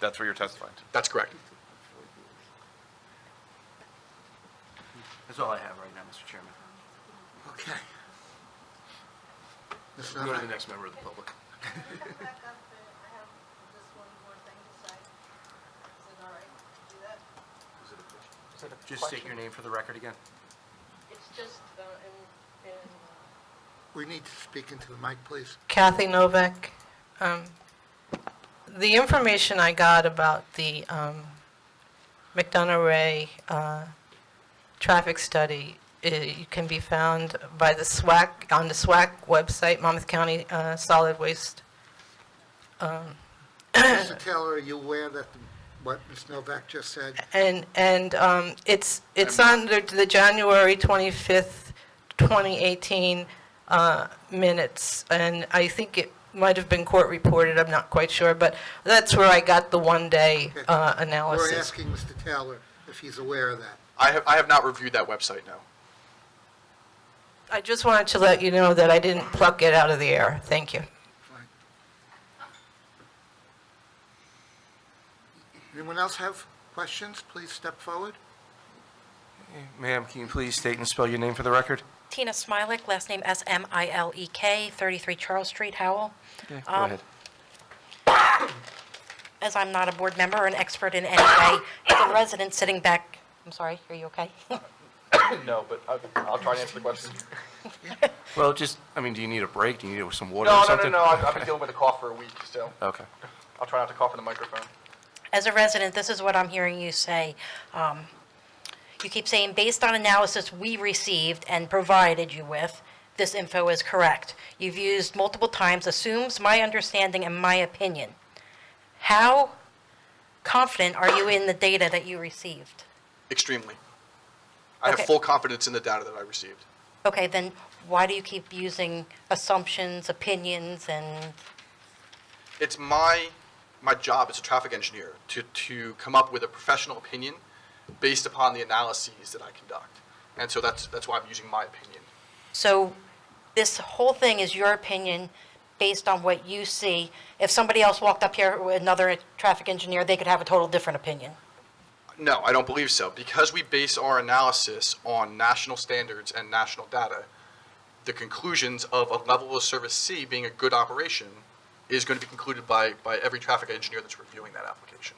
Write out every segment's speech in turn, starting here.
That's what you're testifying to. That's correct. That's all I have right now, Mr. Chairman. Okay. Mr. Go to the Dunaway. next member of the public. back up, but I have just one more thing to say. Is it all right to do that? Just state your name for the record again. It's just, uh, in, in. We need to speak into the mic, please. Kathy Novak, um, the information I got about the, um, McDonough Ray, uh, traffic study, it can be found by the SWAC, on the SWAC website, Monmouth County, uh, Solid Waste. Mr. Taylor, are you aware that the- what Ms. Novak just said? And, and um, it's, it's under the January 25th, 2018 uh, minutes, and I think it might have been court reported, I'm not quite sure, but that's where I got the one-day Okay. uh, We're analysis. asking Mr. Taylor if he's aware of that. I have, I have not reviewed that website, no. I just wanted to let you know that I didn't pluck it out of the air. Thank you. Fine. Anyone else have questions? Please step forward. Ma'am, can you please state and spell your name for the record? Tina Smilek, last name S-M-I-L-E-K, 33 E Charles Street, Howell. Yeah, go Um, ahead. As I'm not a board member or an expert in any way, as a resident sitting back, I'm sorry, are you okay? No, but I'll, I'll try to answer the question. Well, just, I mean, do you need a break? Do you need some water No, or no, something? no, no, I've, I've been dealing with a cough for a week, so Okay. I'll try not to cough in the microphone. As a resident, this is what I'm hearing you say. Um, You keep saying, based on analysis we received and provided you with, this info is correct. You've used multiple times, assumes my understanding and my opinion. How confident are you in the data that you received? Extremely. I have Okay. full confidence in the data that I received. Okay, then why do you keep using assumptions, opinions, and, It's my, my job as a traffic engineer to, to come up with a professional opinion based upon the analyses that I conduct. And so that's, that's why I'm using my opinion. so this whole thing is your opinion based on what you see. If somebody else walked up here, with another traffic engineer, they could have a total different opinion. No, I don't believe so. Because we base our analysis on national standards and national data, the conclusions of a level of service C being a good operation is going to be concluded by, by every traffic engineer that's reviewing that application.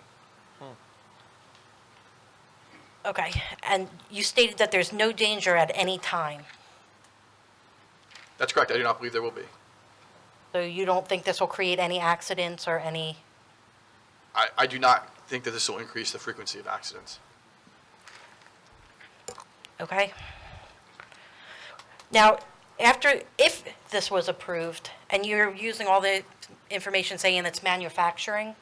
Okay, and you stated that there's no danger at any time. That's correct. I do not believe there will be. So you don't think this will create any accidents or any, I, I do not think that this will increase the frequency of accidents. okay? Now, after, if this was approved, and you're using all the information saying it's manufacturing,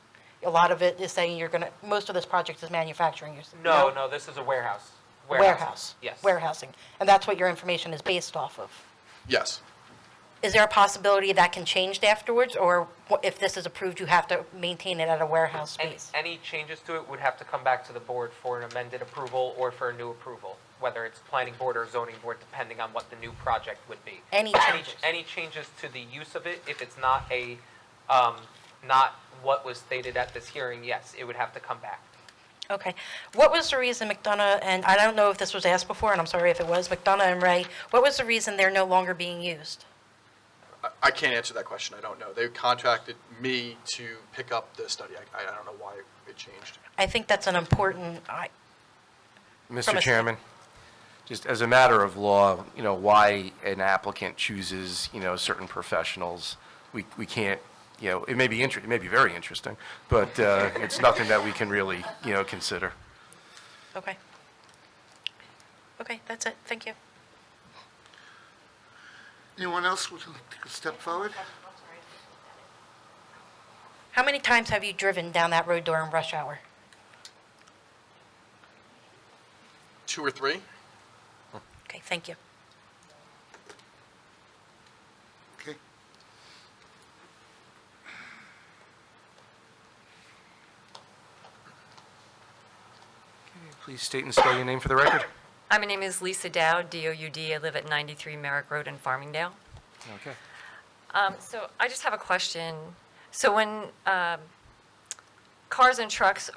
a lot of it is saying you're gonna, most of this project is manufacturing, you're. s- No, no, this is a warehouse. Warehouses, Warehouse. Yes. Warehousing, and that's what your information is based off of. Yes. Is there a possibility that can change afterwards, or wha- if this is approved, you have to maintain it at a warehouse Any, space? any changes to it would have to come back to the board for an amended approval or for a new approval, whether it's planning board or zoning board, depending on what the new project would be. Any changes? Any changes to the use of it, if it's not a, um, not what was stated at this hearing, yes, it would have to come back. Okay. What was the reason McDonough, and I don't know if this was asked before, and I'm sorry if it was, McDonough and Ray, what was the reason they're no longer being used? I, I can't answer that question. I don't know. They contracted me to pick up the study. I, I don't know why it changed. I think that's an important, I, From Mr. a- Chairman, just as a matter of law, you know, why an applicant chooses, you know, certain professionals, we, we can't, you know, it may be inter, it may be very interesting, but, uh, it's nothing that we can really, you know, consider. okay. Okay, that's it. Thank you. Anyone else would like to step forward? How many times have you driven down that road during rush hour? Two or three? Okay, thank you. Okay. Please state and spell your name for the record. Hi, Uh, my name is Lisa Dow, D-O-U-D. I live at 93 Merrick Road in Farmingdale. Okay. Um, So I just have a question. So when um, cars and trucks